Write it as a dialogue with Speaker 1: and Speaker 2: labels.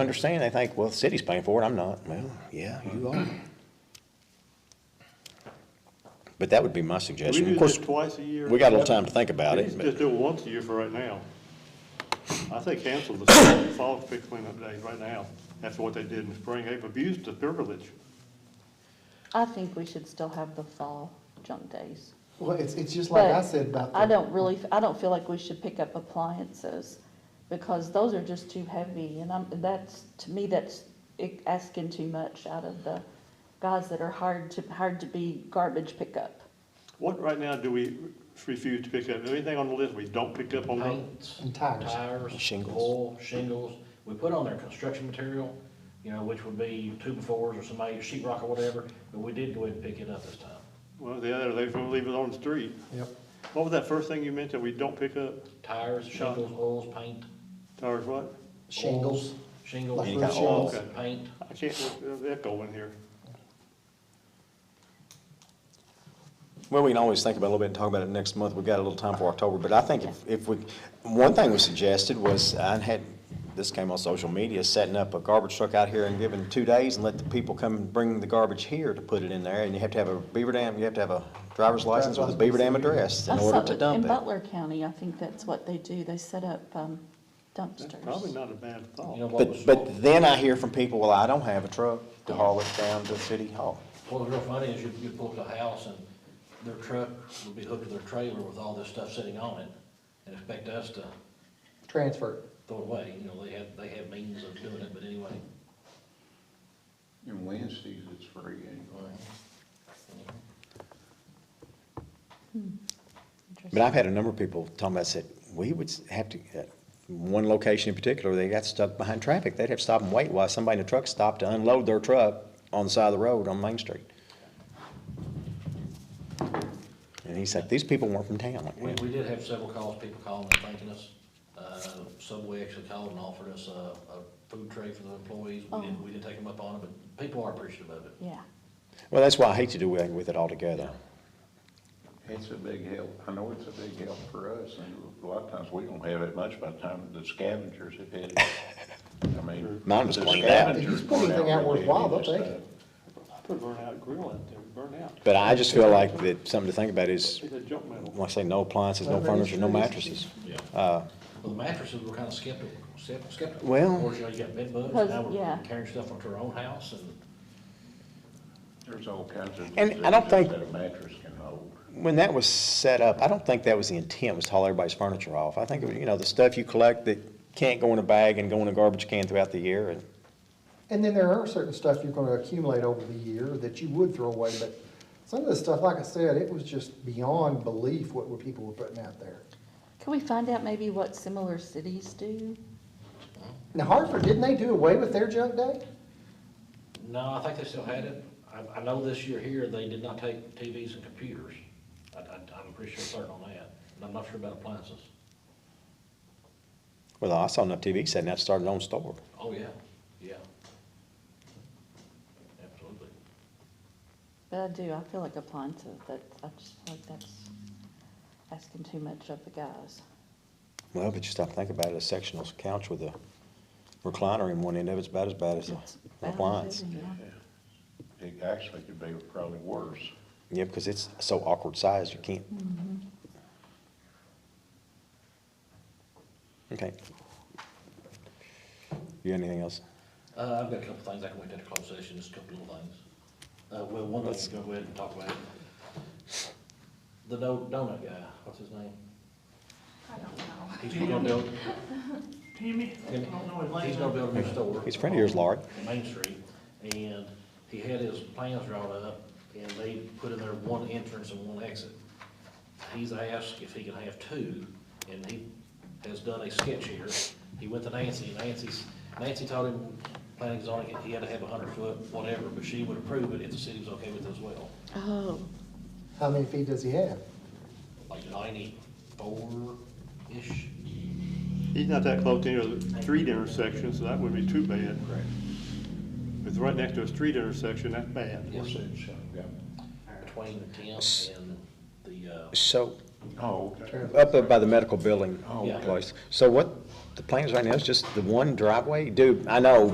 Speaker 1: understand, they think, well, the city's paying for it, I'm not. Well, yeah, you are. But that would be my
Speaker 2: We
Speaker 1: suggestion.
Speaker 2: do
Speaker 1: Of course,
Speaker 2: this twice a year.
Speaker 1: we got a little time to think about
Speaker 2: We
Speaker 1: it.
Speaker 2: just
Speaker 1: but-
Speaker 2: just do it once a year for right now. I say cancel the fall- fall pick cleanup days right now, after what they did in the spring. They've abused the privilege.
Speaker 3: I think we should still have the fall junk days.
Speaker 4: Well, it's, it's just like I
Speaker 3: But
Speaker 4: said about.
Speaker 3: I
Speaker 4: the-
Speaker 3: don't really, I don't feel like we should pick up appliances, because those are just too heavy, and I'm, that's, to me, that's i- asking too much out of the guys that are hired to, hired to be garbage pickup.
Speaker 2: What right now do we refuse to pick up? Is there anything on the list we don't pick up on?
Speaker 5: paints,
Speaker 4: And tires.
Speaker 5: tires.
Speaker 1: Shingles.
Speaker 5: Oil, shingles. We put on their construction material, you know, which would be two fours or somebody, sheet rock or whatever, but we did go ahead and pick it up this time.
Speaker 2: Well, the other, they're gonna leave it on the street.
Speaker 4: Yep.
Speaker 2: What was that first thing you mentioned we don't pick up?
Speaker 5: Tires, shingles, oils, paint.
Speaker 2: Tires what?
Speaker 4: Shingles.
Speaker 5: oils, Shingles.
Speaker 4: Like
Speaker 1: Any kind of
Speaker 4: shingles.
Speaker 2: oil.
Speaker 5: Paint.
Speaker 2: I can't, there's echo in here.
Speaker 1: Well, we can always think about it a little bit and talk about it next month. We've got a little time for October, but I think if, if we, one thing we suggested was, I had, this came on social media, setting up a garbage truck out here and giving two days and let the people come and bring the garbage here to put it in there. And you have to have a beaver dam, you have to have a driver's license with a beaver dam address in
Speaker 3: I saw
Speaker 1: order to
Speaker 3: that
Speaker 1: dump
Speaker 3: In
Speaker 1: it.
Speaker 3: Butler County, I think that's what they do, they set up um,
Speaker 2: That's probably
Speaker 3: dumpsters.
Speaker 2: not a bad
Speaker 5: You know
Speaker 2: thought.
Speaker 5: what was,
Speaker 1: But,
Speaker 5: what
Speaker 1: but then I hear from people, well, I don't have a truck to haul it down to City Hall.
Speaker 5: was real funny is you, you pull up to the house and their truck would be hooked to their trailer with all this stuff sitting on it and expect us to
Speaker 4: Transfer.
Speaker 5: throw it away. You know, they have, they have means of doing it, but anyway.
Speaker 6: And Wednesdays it's free anyway.
Speaker 1: But I've had a number of people talking about, said, we would have to, uh, one location in particular, they got stuck behind traffic. They'd have to stop and wait while somebody in a truck stopped to unload their truck on the side of the road on Main Street. And he's like, these people weren't from town.
Speaker 5: We,
Speaker 1: Like,
Speaker 5: we did have several calls, people calling and thanking us. Uh, Subway actually called and offered us a, a food tray for the employees. We
Speaker 3: Oh.
Speaker 5: didn't, we didn't take them up on it, but people are appreciative of it.
Speaker 3: Yeah,
Speaker 1: Well, that's why I hate to do away with it altogether.
Speaker 6: It's a big help, I know it's a big help for us, and a lot of times we don't have it much by the time the scavengers have hit it. I mean.
Speaker 1: Mine was
Speaker 6: the
Speaker 1: cleaned out.
Speaker 6: scavengers
Speaker 4: If you pull
Speaker 6: clean
Speaker 4: anything out
Speaker 6: really
Speaker 4: worthwhile,
Speaker 6: any of
Speaker 4: they'll
Speaker 6: this
Speaker 4: take it.
Speaker 2: I put a burnout grill out there, burnout.
Speaker 1: But I just feel like that something to think about is,
Speaker 2: It's a junk metal.
Speaker 1: like I say, no appliances, no furniture, no mattresses.
Speaker 5: Yeah. Well, the mattresses were kind of skeptical, skep- skeptical.
Speaker 1: Well-
Speaker 5: Of course, you know, you got bed bugs,
Speaker 3: Because-
Speaker 5: now we're
Speaker 3: yeah.
Speaker 5: carrying stuff onto our own house and.
Speaker 6: stuff. There's all kinds of.
Speaker 1: And I don't think-
Speaker 6: diseases That a mattress can hold.
Speaker 1: When that was set up, I don't think that was the intent, was to haul everybody's furniture off. I think, it was, you know, the stuff you collect that can't go in a bag and go in a garbage can throughout the year, and
Speaker 4: And then there are certain stuff you're gonna accumulate over the year that you would throw away, but some of the stuff, like I said, it was just beyond belief what were people were putting out there.
Speaker 3: can we find out maybe what similar cities do?
Speaker 4: Now Hartford, didn't they do away with their junk day?
Speaker 5: No, I think they still had it. I, I know this year here, they did not take TVs and computers. I, I, I'm pretty sure certain on that, and I'm not sure about appliances.
Speaker 1: Well, I saw enough TV setting up, started on store.
Speaker 5: Oh, yeah, yeah. Absolutely.
Speaker 3: But I do, I feel like appliances, that, I just feel like that's asking too much of the guys.
Speaker 1: Well, but you stop and think about it, a sectional couch with a recliner in one end of it's about as bad as an
Speaker 3: It's bad,
Speaker 1: appliance.
Speaker 3: isn't it?
Speaker 6: It actually could be probably worse.
Speaker 1: Yeah, because it's so awkward size, you can't. Okay. You got anything else?
Speaker 5: Uh, I've got a couple things, I can wait till the closed session, just a couple little things. Uh, well, one let's go ahead and talk about. it. The do- donut guy, what's his name? I don't know. He's gonna build. He's gonna build a new store.
Speaker 1: He's a friend of yours, Laurie.
Speaker 5: on Main Street, and he had his plans drawn up, and they put in there one entrance and one exit. He's asked if he can have two, and he has done a sketch here. He went to Nancy, and Nancy's, Nancy told him, planning and zoning, he had to have a hundred foot, whatever, but she would approve it if the city was okay with it as well.
Speaker 3: Oh,
Speaker 4: How many feet does he have?
Speaker 5: Like ninety-four-ish,
Speaker 2: He's not that close to any of the street intersections, so that wouldn't be too bad.
Speaker 6: Right.
Speaker 2: If it's right next to a street intersection, that's bad.
Speaker 5: Yes.
Speaker 6: Yeah.
Speaker 5: between the tenth and the, uh,
Speaker 1: So,
Speaker 6: Oh, okay.
Speaker 1: up by the medical building
Speaker 6: Oh,
Speaker 5: Yeah.
Speaker 1: place. So what, the plans right now is just the one driveway? Dude, I know,